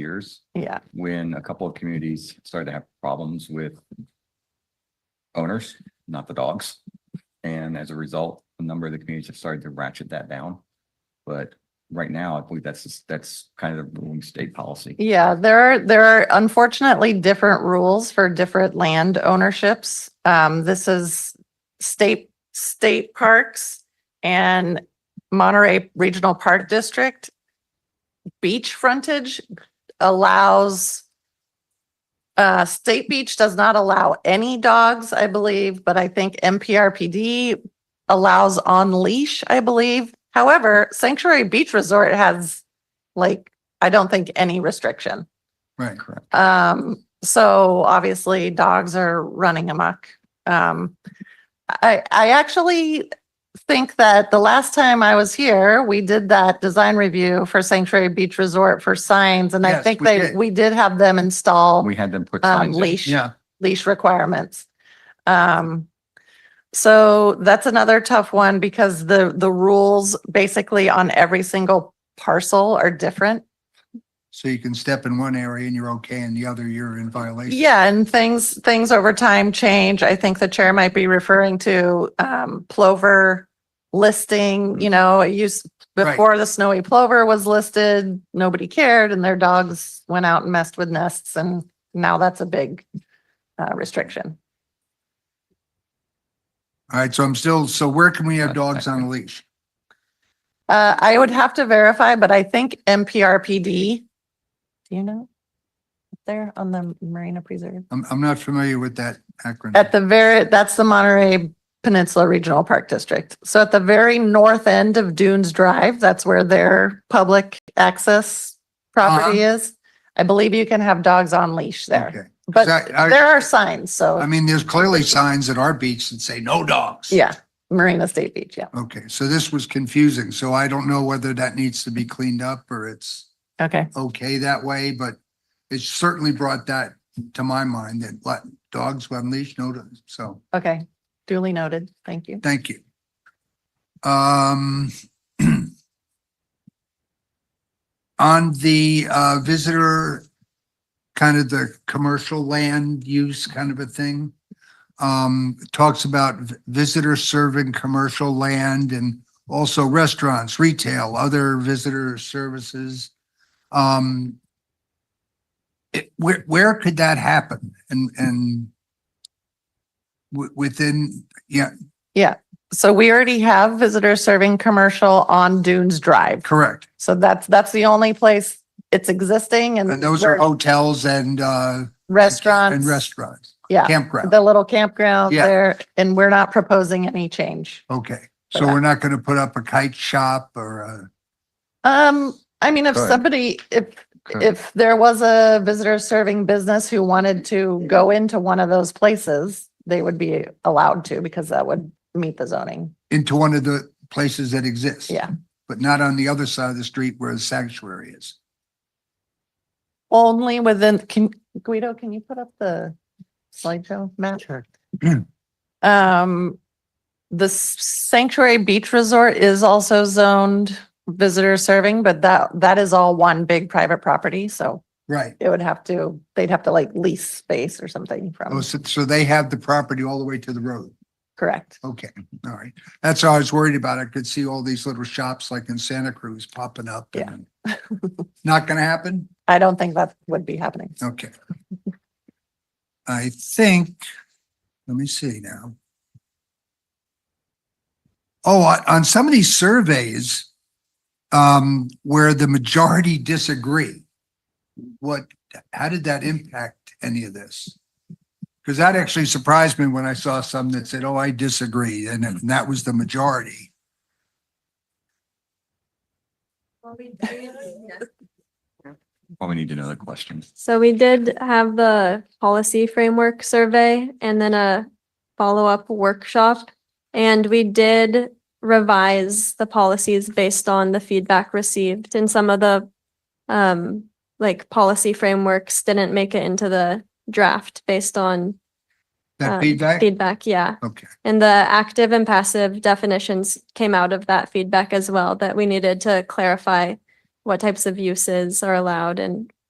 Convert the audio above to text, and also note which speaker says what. Speaker 1: years
Speaker 2: Yeah,
Speaker 1: when a couple of communities started to have problems with owners, not the dogs. And as a result, a number of the communities have started to ratchet that down. But right now, I believe that's, just- that's kind of the ruling state policy.
Speaker 2: yeah, there are, there are unfortunately different rules for different land ownerships. Um, this is state, state parks and Monterey Regional Park District. Beach frontage allows uh, State Beach does not allow any dogs, I believe, but I think MPRPD allows on leash, I believe. However, Sanctuary Beach Resort has like I don't think any restriction.
Speaker 3: Right.
Speaker 1: Correct.
Speaker 2: Um, so obviously dogs are running amok. Um, I, I actually think that the last time I was here, we did that design review for Sanctuary Beach Resort for signs. And I
Speaker 3: Yes,
Speaker 2: think
Speaker 3: we
Speaker 2: they,
Speaker 3: did.
Speaker 2: we did have them install,
Speaker 1: We had them put
Speaker 2: um,
Speaker 1: signs in.
Speaker 2: leash
Speaker 3: Yeah,
Speaker 2: leash requirements. Um, so that's another tough one because the, the rules basically on every single parcel are different.
Speaker 3: so you can step in one area and you're okay, and the other you're in violation.
Speaker 2: Yeah, and things, things over time change. I think the chair might be referring to um plover listing, you know, it used
Speaker 3: Right.
Speaker 2: before the snowy plover was listed, nobody cared and their dogs went out and messed with nests and now that's a big uh restriction.
Speaker 3: All right, so I'm still, so where can we have dogs on a leash?
Speaker 2: Uh, I would have to verify, but I think MPRPD, do you know? Up There on the Marina Preserve.
Speaker 3: I'm, I'm not familiar with that acronym.
Speaker 2: At the very, that's the Monterey Peninsula Regional Park District. So at the very north end of Dunes Drive, that's where their public access property is. I believe you can have dogs on leash there,
Speaker 3: Uh-huh. Okay.
Speaker 2: but
Speaker 3: So I- I-
Speaker 2: there are signs,
Speaker 3: I
Speaker 2: so,
Speaker 3: mean, there's clearly signs at our beach that say no dogs.
Speaker 2: yeah, Marina State Beach, yeah.
Speaker 3: Okay, so this was confusing, so I don't know whether that needs to be cleaned up or it's
Speaker 2: Okay,
Speaker 3: okay that way, but it certainly brought that to my mind that let dogs on leash, no, dogs. so.
Speaker 2: okay, duly noted, thank you.
Speaker 3: Thank you. Um, on the, uh, visitor, kind of the commercial land use kind of a thing. Um, talks about v- visitor serving commercial land and also restaurants, retail, other visitor services. Um, it, where, where could that happen? And, and wi- within, yeah,
Speaker 2: So we already have visitors serving commercial on Dunes Drive.
Speaker 3: correct.
Speaker 2: So that's, that's the only place it's existing and
Speaker 3: And those
Speaker 2: where
Speaker 3: are hotels and, uh.
Speaker 2: restaurants.
Speaker 3: And restaurants,
Speaker 2: Yeah.
Speaker 3: campground.
Speaker 2: the little campground
Speaker 3: Yeah.
Speaker 2: there, and we're not proposing any change.
Speaker 3: Okay,
Speaker 2: for
Speaker 3: so
Speaker 2: that.
Speaker 3: we're not gonna put up a kite shop or uh, a,
Speaker 2: Um, I mean, if
Speaker 1: Good.
Speaker 2: somebody, if,
Speaker 1: Good.
Speaker 2: if there was a visitor serving business who wanted to go into one of those places, they would be allowed to because that would meet the zoning.
Speaker 3: into one of the places that exists.
Speaker 2: Yeah.
Speaker 3: But not on the other side of the street where the sanctuary is.
Speaker 2: Only within, can, Guido, can you put up the slideshow map? Sure. Um, the Sanctuary Beach Resort is also zoned visitor serving, but that, that is all one big private property, so
Speaker 3: Right.
Speaker 2: it would have to, they'd have to like lease space or something
Speaker 3: Oh,
Speaker 2: from,
Speaker 3: So, so they have the property all the way to the road.
Speaker 2: correct?
Speaker 3: Okay, all right. That's all I was worried about. I could see all these little shops like in Santa Cruz popping up.
Speaker 2: Yeah.
Speaker 3: and- Not gonna happen?
Speaker 2: I don't think that would be happening.
Speaker 3: Okay. I think, let me see now. Oh, on- on some of these surveys, um, where the majority disagree, what, how did that impact any of this? Because that actually surprised me when I saw some that said, oh, I disagree, and then that was the majority.
Speaker 1: Well, Oh, we need another question.
Speaker 4: So we did have the policy framework survey and then a follow-up workshop. And we did revise the policies based on the feedback received and some of the um, like policy frameworks didn't make it into the draft based on
Speaker 3: That
Speaker 4: Um,
Speaker 3: feedback?
Speaker 4: feedback, yeah.
Speaker 3: Okay,
Speaker 4: And the active and passive definitions came out of that feedback as well, that we needed to clarify what types of uses are allowed and